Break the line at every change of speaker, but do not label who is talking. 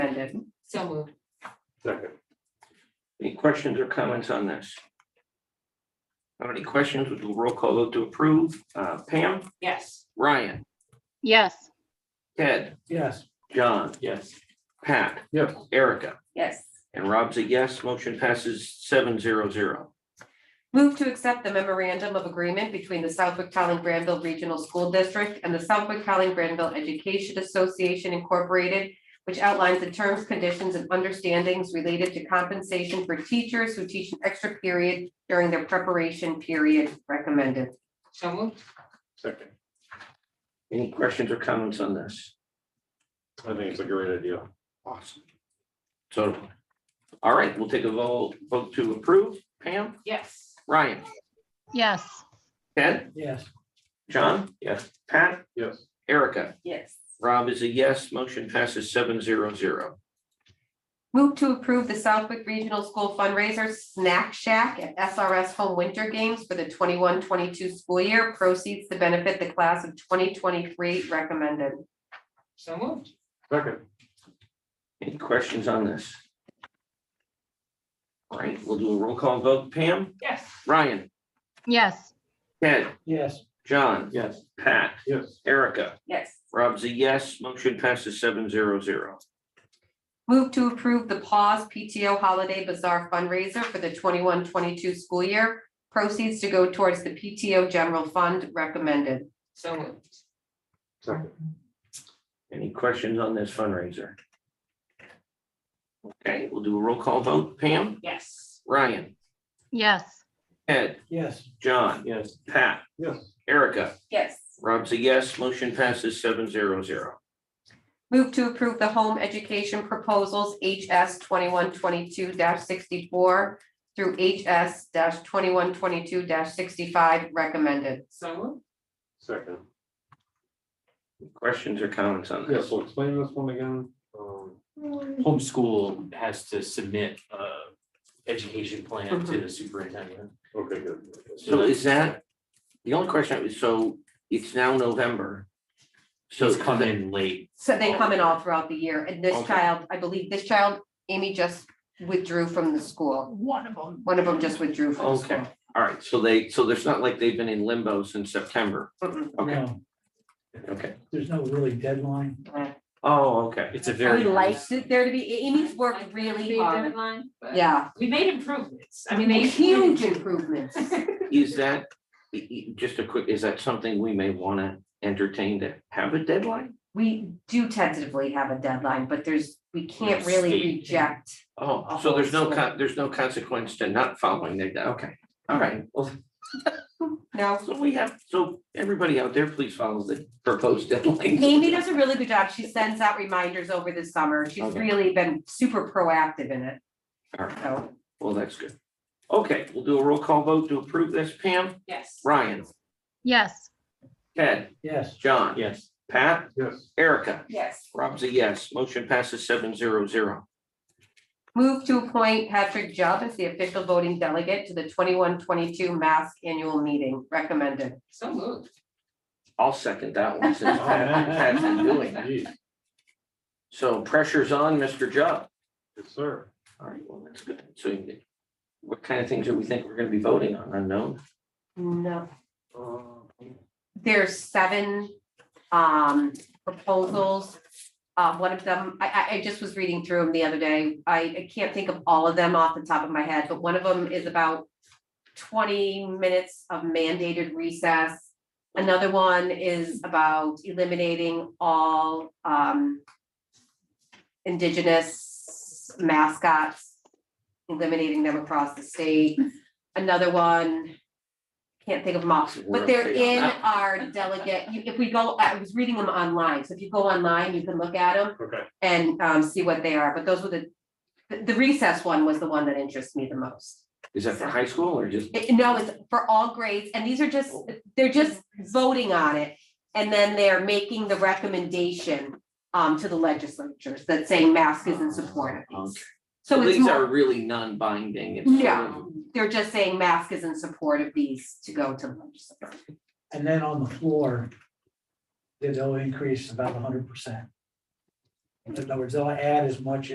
Second,
So moved.
Second. Any questions or comments on this? Not Any questions? We'll do a roll call vote to approve. Uh, Pam,
Yes.
Ryan,
yes,
Ted,
Yes.
John,
Yes.
Pat,
Yes.
Erica,
yes.
and Rob's a yes. Motion passes seven zero zero.
Move to accept the memorandum of agreement between the Southwick Telling Granville Regional School District and the Southwick Telling Granville Education Association Incorporated, which outlines the terms, conditions, and understandings related to compensation for teachers who teach an extra period during their preparation period recommended. So moved.
Second.
Any questions or comments on this?
I think it's a great idea.
Awesome. So, all right, we'll take a vote, vote to approve. Pam,
Yes.
Ryan,
yes,
Ted,
Yes.
John,
Yes.
Pat,
Yes.
Erica.
Yes.
Rob is a yes. Motion passes seven zero zero.
Move to approve the Southwick Regional School fundraiser Snack Shack at SRS Home Winter Games for the 21-22 school year. Proceeds to benefit the class of twenty twenty-three recommended. So moved.
Second.
Any questions on this? All right, we'll do a roll call vote. Pam,
Yes.
Ryan,
yes,
Ted,
Yes.
John,
Yes.
Pat,
Yes.
Erica.
Yes.
Rob's a yes. Motion passes seven zero zero.
Move to approve the Paws PTO Holiday Bazaar fundraiser for the 21-22 school year. Proceeds to go towards the PTO General Fund recommended. So moved.
Second.
Any questions on this fundraiser? Okay, we'll do a roll call vote. Pam,
Yes.
Ryan,
yes,
Ted,
Yes.
John,
Yes.
Pat,
Yes.
Erica.
Yes.
Rob's a yes. Motion passes seven zero zero.
Move to approve the home education proposals HS twenty-one twenty-two sixty-four through HS twenty-one twenty-two sixty-five recommended. So.
Second.
Questions or comments on
Yeah,
this?
so explain this one again. Um,
homeschool has to submit a education plan
Mm-hmm.
to the superintendent.
Okay, good.
So is that, the only question, is so it's now November. So
It's come in late.
So they come in all throughout the year, and this
Okay.
child, I believe this child, Amy just withdrew from the school. One of them. One of them just withdrew from the
Okay,
school.
all right, so they, so there's not like they've been in limbo since September.
Mm-mm.
Okay,
No,
okay.
there's no really deadline.
Oh, okay.
It's a
We
very.
like
Should There to be, Amy's worked really hard,
Yeah,
yeah,
we made improvements. I mean, they.
huge improvements.
Is that, i- i- just a quick, is that something we may want to entertain to have a deadline?
We do tentatively have a deadline, but there's, we can't
Like
really
state.
reject
Oh, so there's no, con- there's no consequence to not following the, okay, all right. Well,
No,
so we have, so everybody out there, please follow the proposed deadline.
Amy does a really good job. She sends out reminders over the summer. She's
Okay.
really been super proactive in it.
All right,
So,
well, that's good. Okay, we'll do a roll call vote to approve this. Pam,
Yes.
Ryan,
yes,
Ted,
Yes,
John,
Yes.
Pat,
Yes.
Erica.
Yes.
Rob's a yes. Motion passes seven zero zero.
move to appoint Patrick Jubb as the official voting delegate to the 21-22 mask annual meeting recommended.
So moved.
I'll second that one
Oh,
since Pat- Pat's been doing that.
Geez,
So pressure's on, Mr. Jupp.
Yes, sir.
All right, well, that's good. So you- what kind of things do we think we're gonna be voting on? Unknown?
No,
Um,
there's seven um proposals. Uh, one of them, I I I just was reading through them the other day. I I can't think of all of them off the top of my head, but one of them is about twenty minutes of mandated recess. Another one is about eliminating all um indigenous mascots, eliminating them across the state. Another one, can't think of them off,
We're
but they're
okay
in
on that.
our delegate, you- if we go, I was reading them online, so if you go online, you can look at them
Okay,
and um see what they are, but those were the the- the recess one was the one that interests me the most.
Is that for high school or just?
It- no, it's for all grades, and these are just, they're just voting on it. And then they're making the recommendation um to the legislatures that saying mask isn't supported.
Okay.
So it's
These are
more,
really non-binding. It's sort of-
they're just saying mask is in support of these to go to the legislature.
and then on the floor, they'll increase about hundred percent. In other words, they'll add as much